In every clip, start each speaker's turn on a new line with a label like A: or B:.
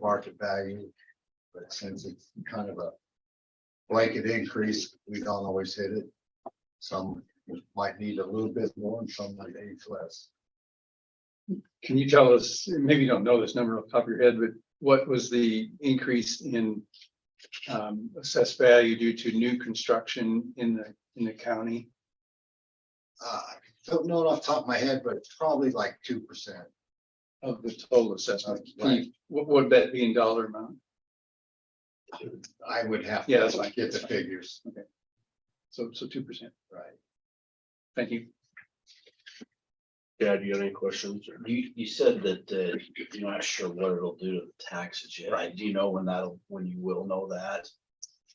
A: market value. But since it's kind of a blanket increase, we don't always hit it. Some might need a little bit more and some might need less.
B: Can you tell us, maybe you don't know this number off the top of your head, but what was the increase in um, assessed value due to new construction in the, in the county?
A: Uh, I don't know it off the top of my head, but it's probably like two percent.
B: Of the total assessment, Can you-
A: Right.
B: what would that be in dollar amount?
A: I would have. to
B: Yeah, that's fine.
A: Get the
B: That's fine.
A: figures,
B: So, so two percent,
A: right?
B: thank you.
C: Chad, you have any questions? or-
D: You, you said that, uh, you're not sure what it'll do to the taxes yet. Do you know when that'll, when you will know that?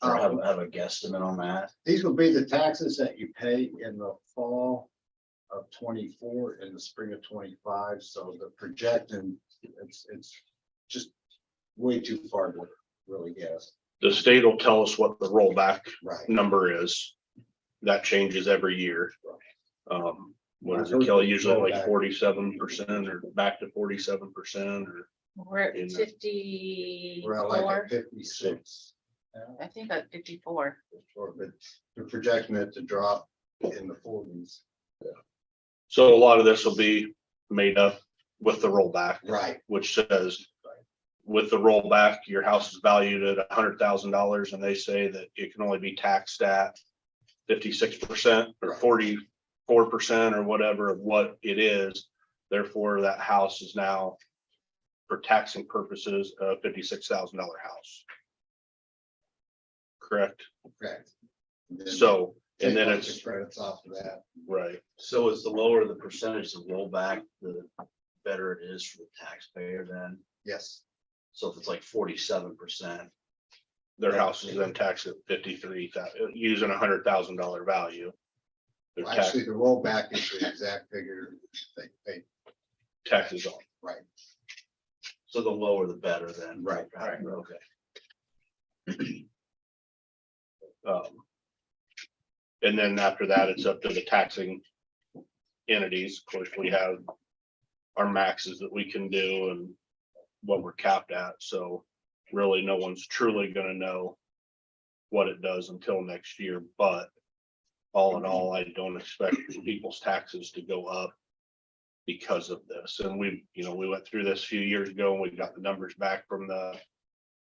D: Or have, have a guesstimate on that?
A: Um, These will be the taxes that you pay in the fall of twenty-four and the spring of twenty-five, so the projecting, it's, it's just way too far to really guess.
C: The state will tell us what the rollback
A: Right.
C: number is. That changes every year. Um, what does it kill? Usually like forty-seven percent or back to forty-seven percent or
E: We're
C: in
E: at
C: the-
A: We're at like
E: fifty-four,
A: at fifty-six. now,
E: I think at fifty-four.
A: or- But they're projecting it to drop in the forties.
C: so a lot of this will be made up with the rollback.
A: Right.
C: which says with the rollback, your house is valued at hundred thousand dollars and they say that it can only be taxed at fifty-six percent or
A: Right.
C: forty-four percent or whatever of what it is. Therefore, that house is now for taxing purposes, a fifty-six thousand dollar house. Correct?
A: Correct. And then
C: So, and then
A: take the
C: it's,
A: Credits off of that.
C: right,
D: So is the lower the percentage of rollback, the better it is for the taxpayer then?
A: Yes,
D: So if it's like forty-seven percent,
C: their house is then taxed at fifty-three thousand, using a hundred thousand dollar value. Their tax,
A: actually, the rollback is the exact figure they paid
C: taxes on.
D: so the lower the better then?
A: Right,
C: right.
D: Okay.
C: Um, And then after that, it's up to the taxing entities. Of course, we have our maxes that we can do and what we're capped at. So really, no one's truly gonna know what it does until next year, but all in all, I don't expect people's taxes to go up because of this. And we, you know, we went through this a few years ago and we got the numbers back from the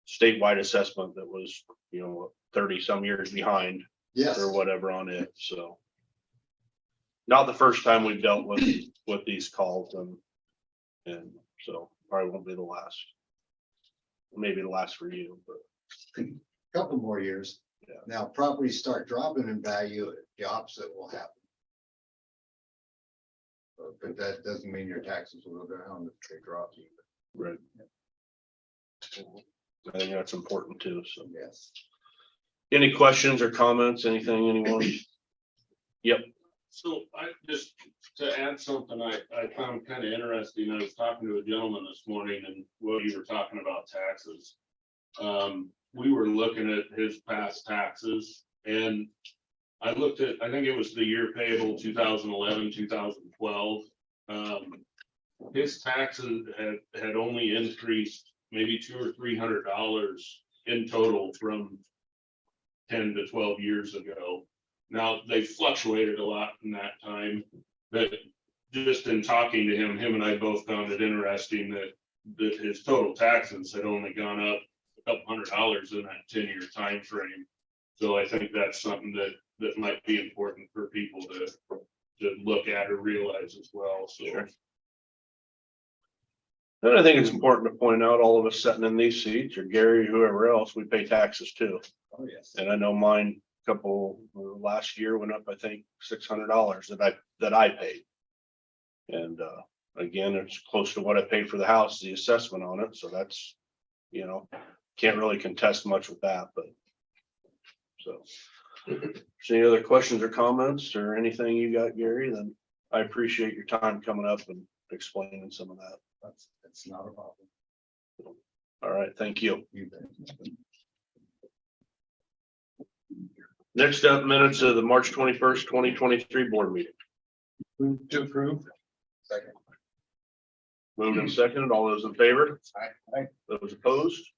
C: statewide assessment that was, you know, thirty some years behind
A: Yes,
C: or whatever on it, so. Not the first time we've dealt with, with these calls and, and so probably won't be the last. Maybe the last for you, but
A: couple more years.
C: Yeah.
A: Now properties start dropping in value, the opposite will happen. But- But that doesn't mean your taxes will go down if they drop you,
C: right. I think that's important too, so.
A: yes.
C: Any questions or comments, anything, anyone?
F: So I just to add something I I found kind of interesting. I was talking to a gentleman this morning and what you were talking about taxes. Um, we were looking at his past taxes and I looked at, I think it was the year payable 2011, 2012. Um, his taxes had had only increased maybe two or three hundred dollars in total from ten to twelve years ago. Now, they fluctuated a lot in that time, but just in talking to him, him and I both found it interesting that that his total taxes had only gone up a couple hundred dollars in that ten-year time frame. So I think that's something that that might be important for people to to look at or realize as well, so.
C: Sure. And I think it's important to point out, all of us sitting in these seats, or Gary, whoever else, we pay taxes too.
A: Oh, yes.
C: And I know mine, a couple, uh, last year went up, I think, six hundred dollars that I, that I paid. And, uh, again, it's close to what I paid for the house, the assessment on it, so that's, you know, can't really contest much with that, but. So. so Any other questions or comments or anything you got, Gary, then I appreciate your time coming up and explaining some of that.
A: That's, that's not a problem.
C: All right, thank you.
A: You bet.
C: Next up, minutes of the March twenty-first, twenty twenty-three board meeting.
B: Move to approve.
A: Second.
C: Moved and seconded. All those in favor? Aye. Those opposed?